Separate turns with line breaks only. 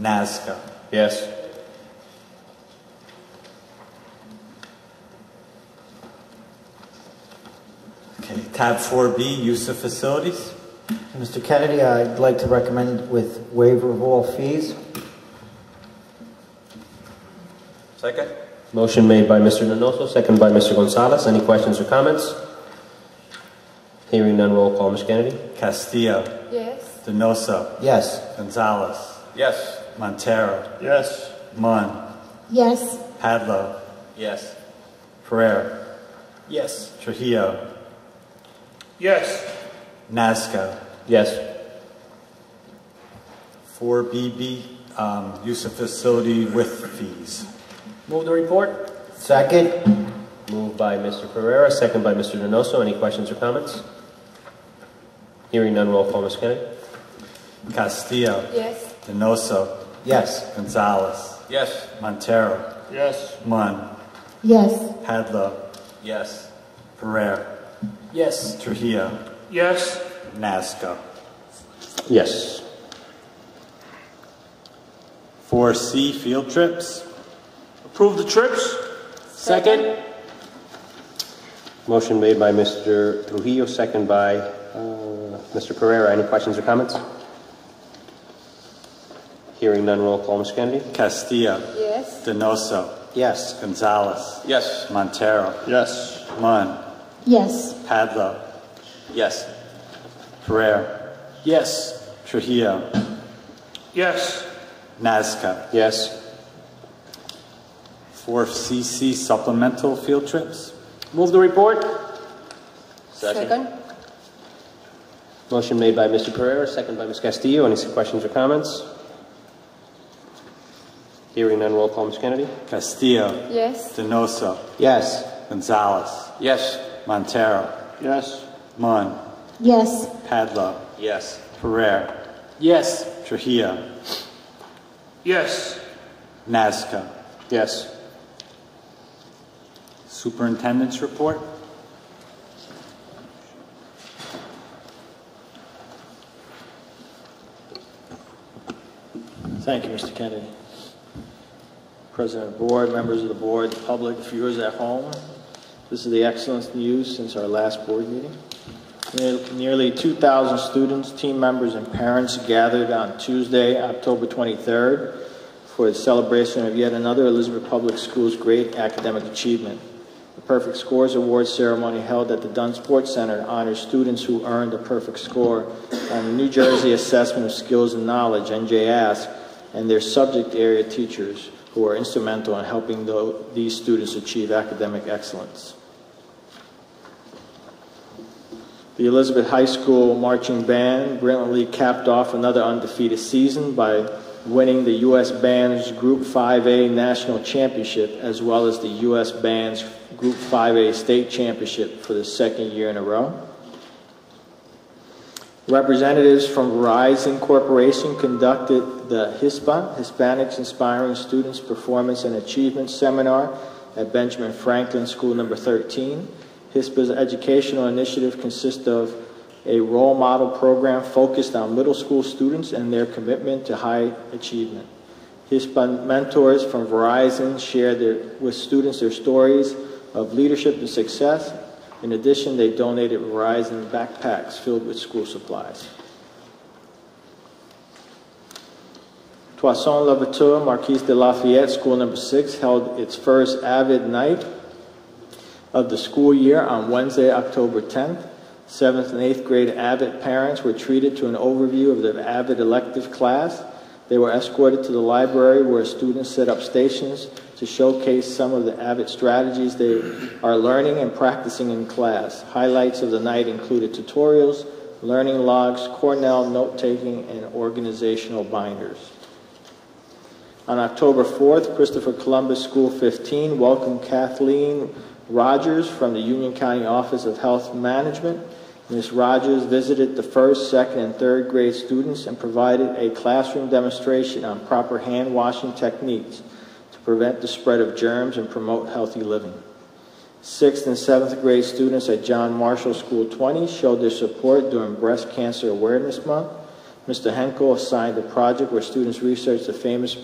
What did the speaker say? Nazca.
Yes.
Okay, tab 4B, use of facilities.
Mr. Kennedy, I'd like to recommend with waiver of all fees.
Second.
Motion made by Mr. Nenoso, second by Mr. Gonzalez. Any questions or comments? Hearing none, roll call, Ms. Kennedy.
Castillo,
Yes.
Denosa,
Yes.
Gonzalez. Yes. Montero,
Yes.
Munn,
Yes.
Padlo,
Yes.
Pereira,
Yes.
Trujillo,
Yes.
Nazca.
Yes.
4BB, um, use of facility with fees.
Move the report.
Second?
Moved by Mr. Pereira, second by Mr. Nenoso. Any questions or comments? Hearing none, roll call, Ms. Kennedy.
Castillo,
Yes.
Denosa,
Yes.
Gonzalez. Yes. Montero,
Yes.
Munn,
Yes.
Padlo. Yes. Pereira,
Yes.
Trujillo,
Yes.
Nazca.
Yes.
4C, field trips.
Approve the trips. Second. Motion made by Mr. Trujillo, second by uh, Mr. Pereira. Any questions or comments? Hearing none, roll call, Ms. Kennedy.
Castillo,
Yes.
Denoso,
Yes.
Gonzalez.
Yes.
Montero,
Yes.
Munn,
Yes.
Padlo,
Yes.
Pereira,
Yes.
Trujillo,
Yes.
Nazca.
Yes.
4CC supplemental field trips.
Move the report.
Second.
Motion made by Mr. Pereira, second by Ms. Castillo. Any questions or comments? Hearing none, roll call, Ms. Kennedy.
Castillo,
Yes.
Denoso,
Yes.
Gonzalez,
Yes.
Montero,
Yes.
Munn,
Yes.
Padlo,
Yes.
Pereira,
Yes.
Trujillo,
Yes.
Nazca.
Yes.
Superintendent's report.
Thank you, Mr. Kennedy. President of the Board, members of the Board, the public, viewers at home, this is the excellent news since our last board meeting. Ne- Nearly 2,000 students, team members, and parents gathered on Tuesday, October 23rd, for the celebration of yet another Elizabeth Public Schools' great academic achievement. The Perfect Scores Award ceremony held at the Dunn Sports Center honors students who earned a perfect score on the New Jersey Assessment of Skills and Knowledge, NJASC, and their subject area teachers who are instrumental in helping tho- these students achieve academic excellence. The Elizabeth High School marching band brilliantly capped off another undefeated season by winning the U.S. Band's Group 5A National Championship as well as the U.S. Band's Group 5A State Championship for the second year in a row. Representatives from Verizon Corporation conducted the HISPA, Hispanics Inspiring Students Performance and Achievement Seminar at Benjamin Franklin School Number 13. HISPA's educational initiative consists of a role model program focused on middle school students and their commitment to high achievement. HISPA mentors from Verizon shared their, with students their stories of leadership and success. In addition, they donated Verizon backpacks filled with school supplies. Toussaint Louverture Marquise de Lafayette School Number Six held its first Avid Night of the school year on Wednesday, October 10th. Seventh and eighth grade Avid parents were treated to an overview of the Avid elective class. They were escorted to the library where students set up stations to showcase some of the Avid strategies they are learning and practicing in class. Highlights of the night included tutorials, learning logs, Cornell note taking, and organizational binders. On October 4th, Christopher Columbus School 15 welcomed Kathleen Rogers from the Union County Office of Health Management. Ms. Rogers visited the first, second, and third grade students and provided a classroom demonstration on proper hand washing techniques to prevent the spread of germs and promote healthy living. Sixth and seventh grade students at John Marshall School 20 showed their support during Breast Cancer Awareness Month. Mr. Henkel assigned a project where students researched the famous